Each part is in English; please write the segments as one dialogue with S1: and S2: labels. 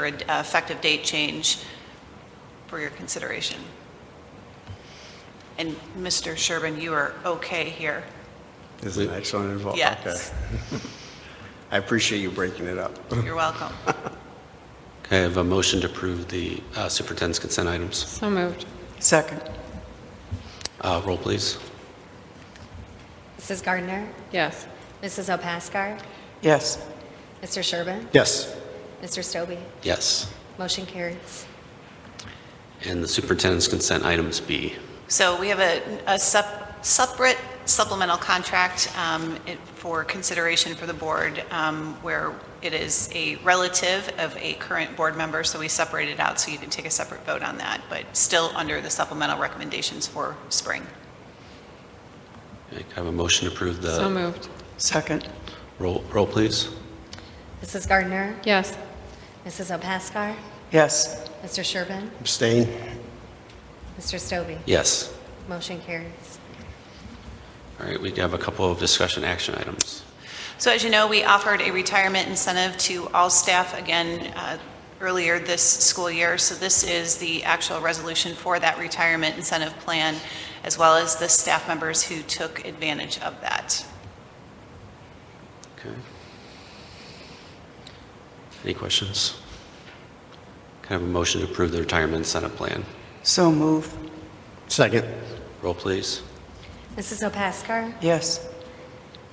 S1: for an effective date change for your consideration. And Mr. Sherbin, you are okay here.
S2: Is the next one involved?
S1: Yes.
S2: Okay. I appreciate you breaking it up.
S1: You're welcome.
S3: Okay, I have a motion to approve the uh, superintendent's consent items.
S4: So moved.
S5: Second.
S3: Uh, Roll, please.
S6: Mrs. Gardner,
S4: Yes.
S6: Mrs. Opaskar,
S5: Yes.
S6: Mr. Sherbin,
S2: Yes.
S6: Mr. Stobie.
S3: Yes.
S6: Motion carries.
S3: And the superintendent's consent items B.
S1: So we have a, a sup- separate supplemental contract um, it- for consideration for the board, um, where it is a relative of a current board member, so we separate it out so you can take a separate vote on that, but still under the supplemental recommendations for spring.
S3: Okay, I have a motion to approve
S4: So
S3: the,
S4: moved.
S5: Second.
S3: roll, roll, please.
S6: Mrs. Gardner,
S4: Yes.
S6: Mrs. Opaskar,
S5: Yes.
S6: Mr. Sherbin,
S2: Abstain?
S6: Mr. Stobie.
S3: Yes.
S6: Motion carries.
S3: All right, we have a couple of discussion action items.
S1: So as you know, we offered a retirement incentive to all staff again uh, earlier this school year. So this is the actual resolution for that retirement incentive plan, as well as the staff members who took advantage of that.
S3: Okay. Any questions? Can I have a motion to approve the retirement incentive plan?
S5: So move.
S2: Second?
S3: Roll, please.
S6: Mrs. Opaskar,
S5: Yes.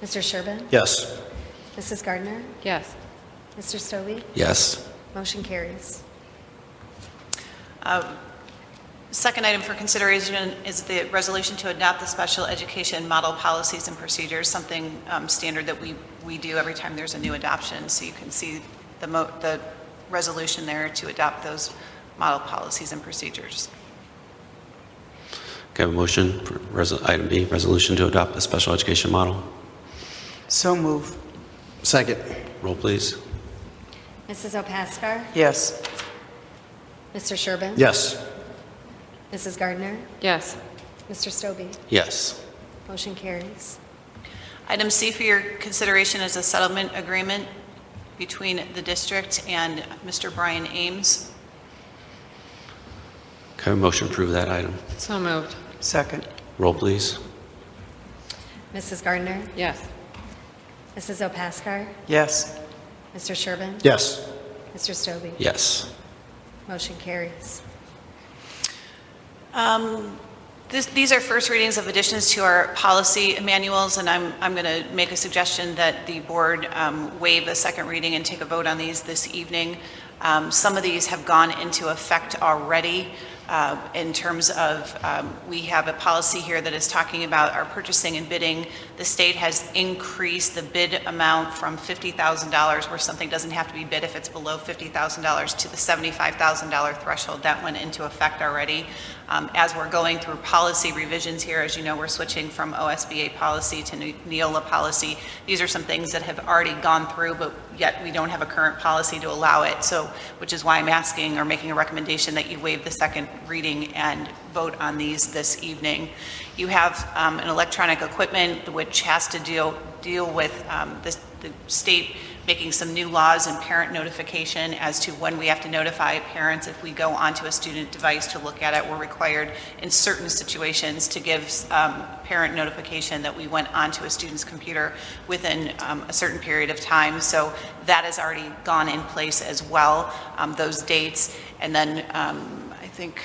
S6: Mr. Sherbin,
S2: Yes.
S6: Mrs. Gardner,
S4: Yes.
S6: Mr. Stobie.
S3: Yes.
S6: Motion carries.
S1: Second item for consideration is the resolution to adopt the special education model policies and procedures, something um, standard that we, we do every time there's a new adoption. So you can see the mo, the resolution there to adopt those model policies and procedures.
S3: Can I have a motion, for resol- item B, resolution to adopt the special education model?
S5: So move.
S2: Second?
S3: Roll, please.
S6: Mrs. Opaskar,
S5: Yes.
S6: Mr. Sherbin.
S2: Yes.
S6: Mrs. Gardner,
S4: Yes.
S6: Mr. Stobie.
S3: Yes.
S6: Motion carries.
S1: Item C for your consideration is a settlement agreement between the district and Mr. Brian Ames.
S3: Can I have a motion to approve that item?
S4: So moved.
S5: Second.
S3: Roll, please.
S6: Mrs. Gardner,
S4: Yes.
S6: Mrs. Opaskar,
S5: Yes.
S6: Mr. Sherbin,
S2: Yes.
S6: Mr. Stobie.
S3: Yes.
S6: Motion carries.
S1: This- These are first readings of additions to our policy manuals, and I'm, I'm going to make a suggestion that the board um, waive a second reading and take a vote on these this evening. Um, Some of these have gone into effect already uh, in terms of, um, we have a policy here that is talking about our purchasing and bidding. The state has increased the bid amount from $50,000, where something doesn't have to be bid if it's below $50,000, to the $75,000 threshold. That went into effect already. Um, As we're going through policy revisions here, as you know, we're switching from OSBA policy to Ne- Neola policy. These are some things that have already gone through, but yet we don't have a current policy to allow it, so, which is why I'm asking or making a recommendation that you waive the second reading and vote on these this evening. You have um, an electronic equipment which has to deal, deal with um, the the state making some new laws and parent notification as to when we have to notify parents if we go onto a student device to look at it. We're required in certain situations to give um, parent notification that we went onto a student's computer within um, a certain period of time. So that has already gone in place as well, um, those dates. And then um, I think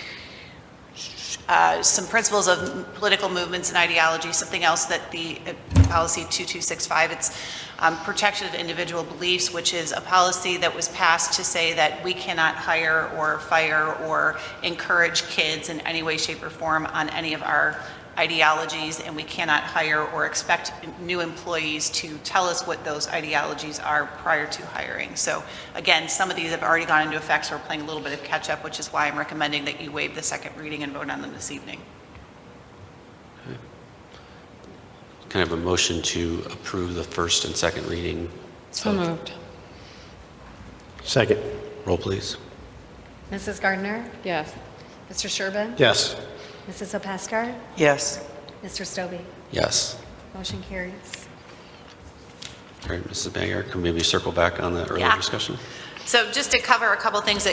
S1: uh, some principles of m- political movements and ideology, something else that the uh, policy 2265, it's um, protection of individual beliefs, which is a policy that was passed to say that we cannot hire or fire or encourage kids in any way, shape, or form on any of our ideologies, and we cannot hire or expect new employees to tell us what those ideologies are prior to hiring. So again, some of these have already gone into effect, so we're playing a little bit of catch-up, which is why I'm recommending that you waive the second reading and vote on them this evening.
S3: Can I have a motion to approve the first and second reading?
S4: So
S3: of-
S4: moved.
S2: Second?
S3: Roll, please.
S6: Mrs. Gardner,
S4: Yes.
S6: Mr. Sherbin,
S2: Yes.
S6: Mrs. Opaskar,
S5: Yes.
S6: Mr. Stobie.
S3: Yes.
S6: Motion carries.
S3: All right, Mrs. Banger, can we maybe circle back on the earlier
S1: Yeah.
S3: discussion?
S1: So just to cover a couple things that